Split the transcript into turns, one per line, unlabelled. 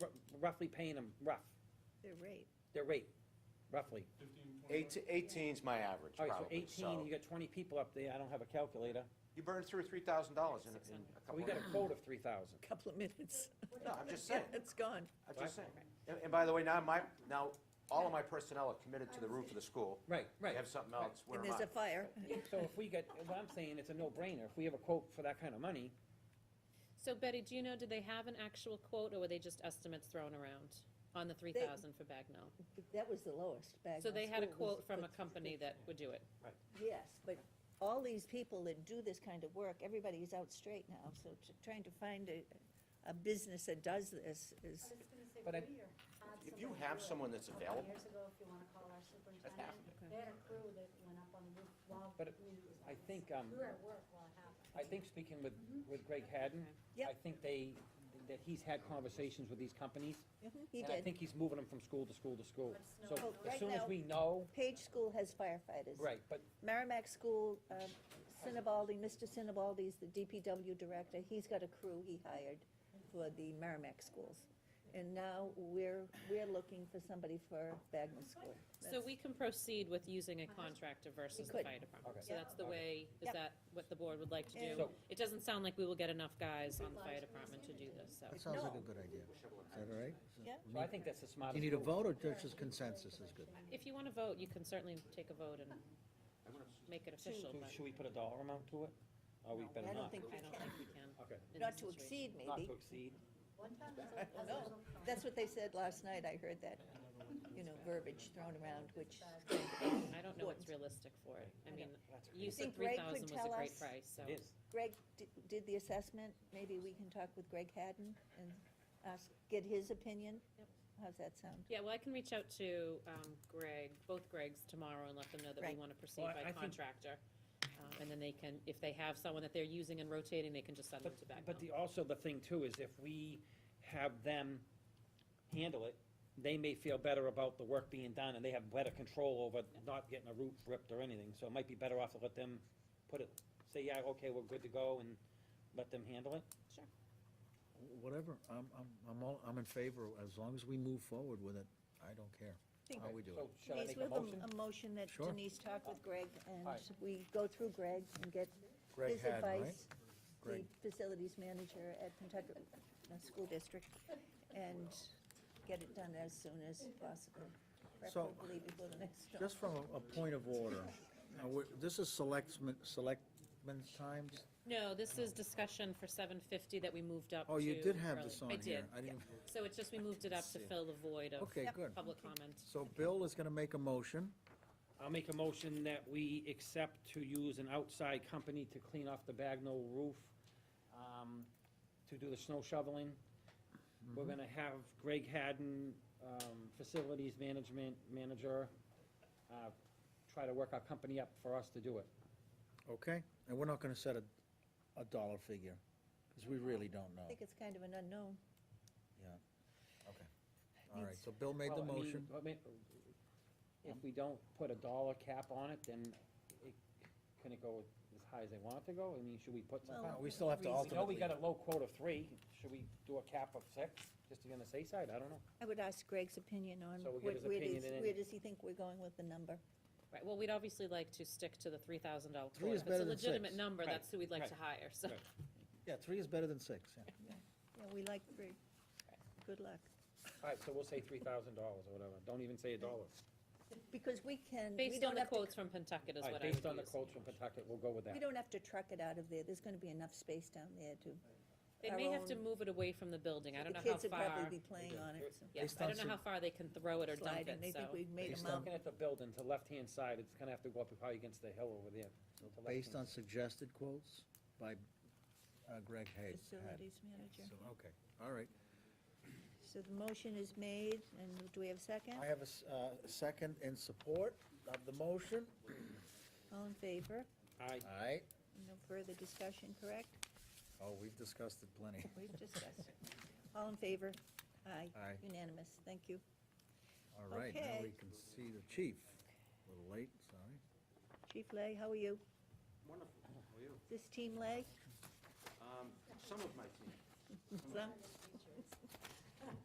roughly paying them, rough,
They're right.
their rate, roughly?
Fifteen, twenty-five?
Eighteen, eighteen's my average,
All right, so
probably,
eighteen,
so.
you got twenty people up there, I don't have a calculator,
You burned through three thousand dollars in, in a
so Oh,
couple
we
of
got a
minutes.
quote of three thousand.
Couple of minutes.
No, I'm just saying,
It's gone.
I'm just saying. And, and by the way, now my, now, all of my personnel are committed to the roof of the school.
Right,
They
right.
have something
Right.
else, where
And
am I?
there's a fire.
So if we get, what I'm saying, it's a no-brainer, if we have a quote for that kind of money,
So Betty, do you know, did they have an actual quote, or were they just estimates thrown around on the three thousand for Bagnell?
That was the lowest back.
So they had a
School was
quote from
the-
a company that would do it.
Yes, but all these people that do this kind of work, everybody's out straight now, so t- trying to find a, a business that does this is,
But
But
I-
If you have someone that's available-
Years ago, if you wanna call our
half
superintendent, they had a crew that went up on the roof while the
But
community was
I
on
think,
this.
um,
We were at work while it happened.
I think speaking with, with Greg Hadden,
Yep.
I think they, that he's had conversations with these companies.
he
And I
did.
think he's moving them from school to school to school. So
Well,
as
right
soon as
now-
we know,
Page School has firefighters.
right, but
Merrimack School, um, Sinibaldi, Mr. Sinibaldi's the DPW director, he's got a crew he hired for the Merrimack schools. And now we're, we're looking for somebody for Bagnell School.
So we can proceed with using a contractor versus
could.
the fire department.
Okay.
So that's the
Yeah.
way, is
Yep.
that what the board would like to do?
So-
It doesn't sound like we will get enough guys on the fire department to do this, so.
That sounds like
No.
a good idea. Is that all right?
Yeah.
We
So I
need-
think that's the
Do you
smartest
need a
move.
vote or just consensus is good?
If you want to vote, you can certainly take a vote and make it official,
So
but
should we put a dollar amount to it? Or we better
I don't
not?
think we
I don't
can,
think we can.
Okay.
in
not
this
to
situation.
exceed
Not
maybe.
to exceed.
One time, it was a- it
No,
was a-
that's what they said last night, I heard that, you know, verbiage thrown around, which,
I don't know what's realistic for it. I mean,
That's great.
you said
think Greg
three
could
thousand was
tell
a great
us-
price, so.
It is.
Greg di- did the assessment, maybe we can talk with Greg Hadden and ask, get his opinion?
Yep.
How's that sound?
Yeah, well, I can reach out to um, Greg, both Gregs tomorrow and let them know that we
Right.
want to proceed
Well, I- I think-
by contractor. Um, And then they can, if they have someone that they're using and rotating, they can just send them
But,
to Bagnell.
but the, also the thing too is if we have them handle it, they may feel better about the work being done and they have better control over not getting a roof ripped or anything. So it might be better off to let them put it, say, yeah, okay, we're good to go and let them handle it.
Whatever, I'm, I'm, I'm all, I'm in favor, as long as we move forward with it, I don't care
Think-
how we do
So
it.
should I
Denise,
make
we
a
have a-
motion?
a motion that
Sure.
Denise talked with Greg, and
All right.
we go through Greg and get
Greg
his
Hadden, right?
advice, the
Greg.
facilities manager at Kentucky uh, School District, and get it done as soon as possible,
So-
preferably before the next storm.
Just from a, a point of order, now, we're- this is selectmen, selectmen's times?
No, this is discussion for seven fty that we moved up to.
Oh, you did have
early.
this on
I
here.
did.
I didn't,
So it's just we moved it up to
See.
fill the void of
okay, good.
public comment.
So Bill is gonna make a motion.
I'll make a motion that we accept to use an outside company to clean off the Bagnell roof, um, to do the snow shoveling.
Mm-hmm.
We're gonna have Greg Hadden, um, facilities management manager, uh, try to work our company up for us to do it.
Mm-hmm. Okay, and we're not gonna set a, a dollar figure, because we really don't
I
know.
think it's kind of an unknown.
All right, so Bill made the
Well, I mean,
motion.
I mean, If we don't put a dollar cap on it, then it, can it go as high as they want it to go? I mean, should we put some?
Well,
kind
No,
of-
We still have to
We know we
ultimately,
got a low quote of three, should we do a cap of six, just to be on the safe side, I don't know.
I would ask Greg's opinion on,
So we'll get
where
his
where
opinion
does,
and then-
where does he think we're going with the number?
Right, well, we'd obviously like to stick to the three thousand dollar
Three
quote.
is
If it's
better
a
than six.
legitimate number,
Right,
that's who we'd like
right,
to hire, so.
right.
yeah, three is better than six, yeah.
Yeah, we like three. Good luck.
All right, so we'll say three thousand dollars or whatever, don't even say a dollar.
Because we can, we
Based
don't
on the
have to
quotes from Pentucket is
All
what I
right,
would
based on the
use.
quotes from Pawtucket, we'll go with that.
We don't have to truck it out of there, there's gonna be enough space down there to,
They
our
may have to
own-
move it away from the building. I don't
the
know how
kids would probably
far,
be playing on it, so.
yes,
Based
I
on
don't know
some-
how far they can throw it or dump
Sliding,
it,
they
so.
think we've made
Based
them
on-
out.
Looking at the building to left-hand side, it's gonna have to go up probably against the hill over there. to
Based
left-hand
on suggested quotes by uh, Greg Hay.
Facilities manager.
So, Okay, all right.
So the motion is made, and do we have a second?
I have a s- uh, second in support of the motion.
All in favor?
All right,
All right.
No further discussion, correct?
Oh, we've discussed it plenty.
We've discussed. All in favor? Aye.
Aye.
Unanimous, thank you.
All right, now we
Okay.
can see the chief. A little late, sorry.
Chief Lay, how are you?
Wonderful, how are you?
Is This team Lay?
Um, some of my team.
Some?